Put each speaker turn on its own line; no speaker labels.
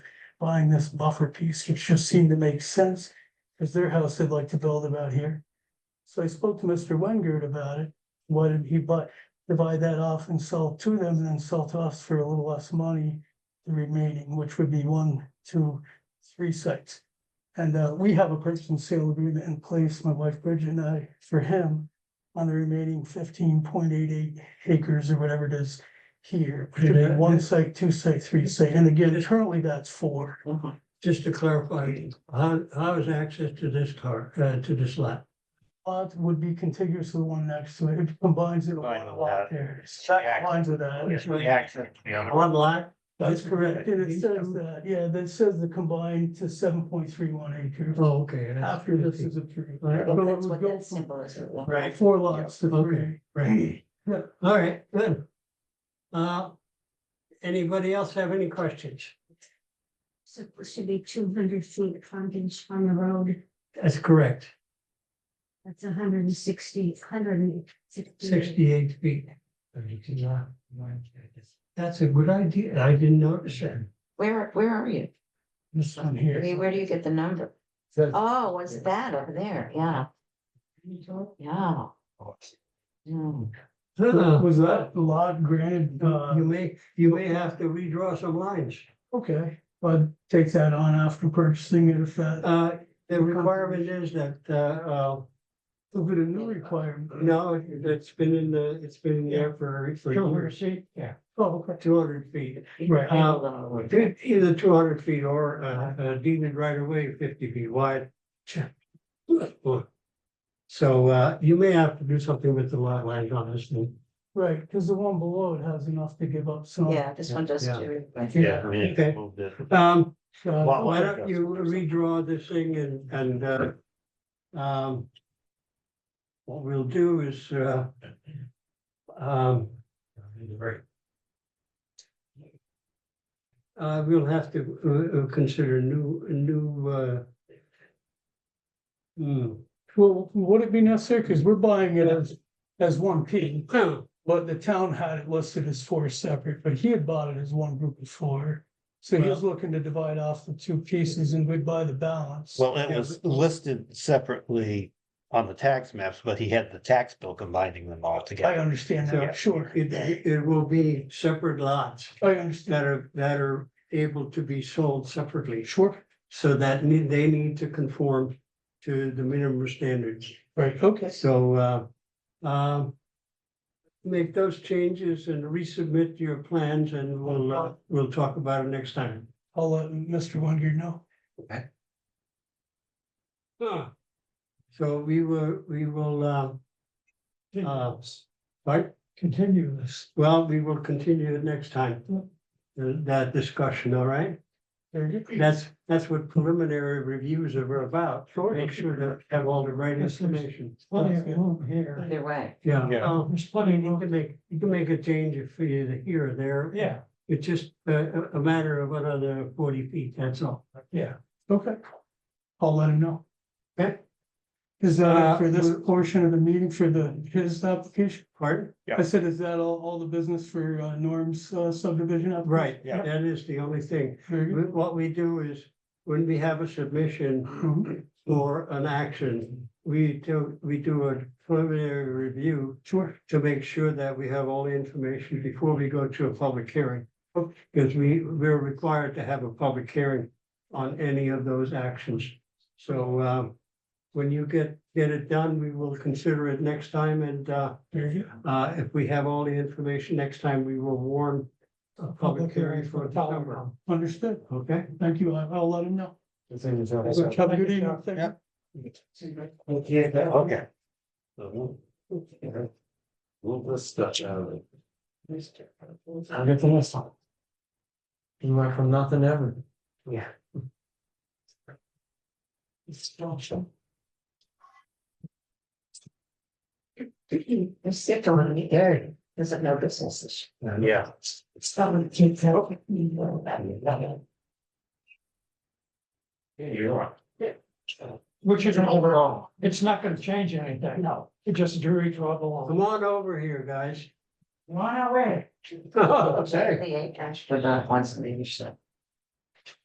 buying this buffer piece, which just seemed to make sense, because their house they'd like to build about here. So I spoke to Mr. Wengert about it, why didn't he buy, divide that off and sell to them and then sell to us for a little less money? The remaining, which would be one, two, three sites. And uh, we have a purchase and sale agreement in place, my wife Bridget and I, for him. On the remaining fifteen point eight eight acres or whatever it is here, which would be one site, two site, three site, and again, currently that's four.
Just to clarify, how, how is access to this car, uh, to this lot?
Lot would be contiguous to the one next to it, it combines it with
Combine
a
with
lot
that.
there, that combines with that.
Yes.
The access to the other.
One lot?
That's correct, and it says that, yeah, that says the combined to seven point three one acres
Oh, okay. that's-
after this is approved.
All right.
So it
That's
would
what
go
that
from
symbol is.
Right.
Four lots to three.
Okay, right. Yeah, all right, good. Uh, anybody else have any questions?
So it should be two hundred feet frontage on the road,
That's correct,
that's a hundred and sixty, hundred and sixty.
sixty-eight feet. That's a good idea. I didn't notice that.
Where, where are you?
This one
I mean,
here.
Where do you get the number? Oh, was that over there? Yeah, yeah. Hmm.
Uh,
Was that lot granted, uh,
You may, you may have to redraw some lines.
okay, but take that on after purchasing it if that,
Uh, the requirement is that, uh, uh,
if it a new requirement.
no, it's been in the, it's been there for, for years. Yeah.
Oh, okay.
Two hundred feet,
Right.
Uh, either two hundred feet or, uh, uh, deemed right away fifty feet wide. So, uh, you may have to do something with the lot line on this thing.
Right, because the one below it has enough to give up some.
Yeah, this one does
Yeah.
too. right.
Yeah, I mean,
Okay.
move this.
Um,
Uh,
Lot
why
line
don't you redraw this thing and, and, uh, um, what we'll do is, uh, um, Uh, we'll have to uh, uh, consider new, new, uh. Hmm.
Well, would it be necessary? Because we're buying it as, as one piece, but the town had it listed as four separate, but he had bought it as one group of four. So he was looking to divide off the two pieces and we'd buy the balance.
Well, it was listed separately on the tax maps, but he had the tax bill combining them all
I
together.
understand
Yeah.
that, sure.
It, it will be separate lots
I understand,
that are, that are able to be sold separately.
sure.
So that need, they need to conform to the minimum standards.
Right, okay.
So, uh, um. Make those changes and resubmit your plans and we'll, uh, we'll talk about it next time.
I'll let Mr. Wonder know.
So we will, we will, uh, uh, right?
Continue this.
Well, we will continue it next time. uh, That discussion, all right?
There you go.
That's, that's what preliminary reviews are about.
Sure.
Make sure to have all the right
Yes, there's-
information.
plenty of room
here.
Either way.
Yeah.
Yeah.
um,
There's plenty
You can make, you can make a change if you to here or there.
Yeah,
It's just a, a- a matter of another forty feet, that's all.
yeah, okay. I'll let him know.
Okay.
Is that
Uh,
it for this portion of the meeting for the, his application?
Pardon?
I said, is that all, all the business for uh, Norm's uh, subdivision? application?
Right,
Yeah.
that is the only thing.
Very good.
Wh- What we do is, when we have a submission
Mhm.
or an action, we do, we do a preliminary review
Sure,
to make sure that we have all the information before we go to a public hearing.
Okay.
Because we, we're required to have a public hearing on any of those actions. So, um, when you get, get it done, we will consider it next time and, uh,
very good.
uh, if we have all the information next time, we will warn a public hearing for December,
Understood.
okay?
Thank you. I- I'll let him know. Have a good evening. Thank you.
Okay. So move- Move this stuff out of it.
I'll get the next one. You went from nothing to everything. Yeah. It's structure.
They're sick on the area. There's no businesses.
Yeah.
It's not what kids have. You know, that, that.
Yeah, you're right.
Which is an overall, it's not gonna change anything. No. It just drew each other along.
Come on over here, guys.
Run away.
Okay.
eh, The eight dash, but not once in the year, so.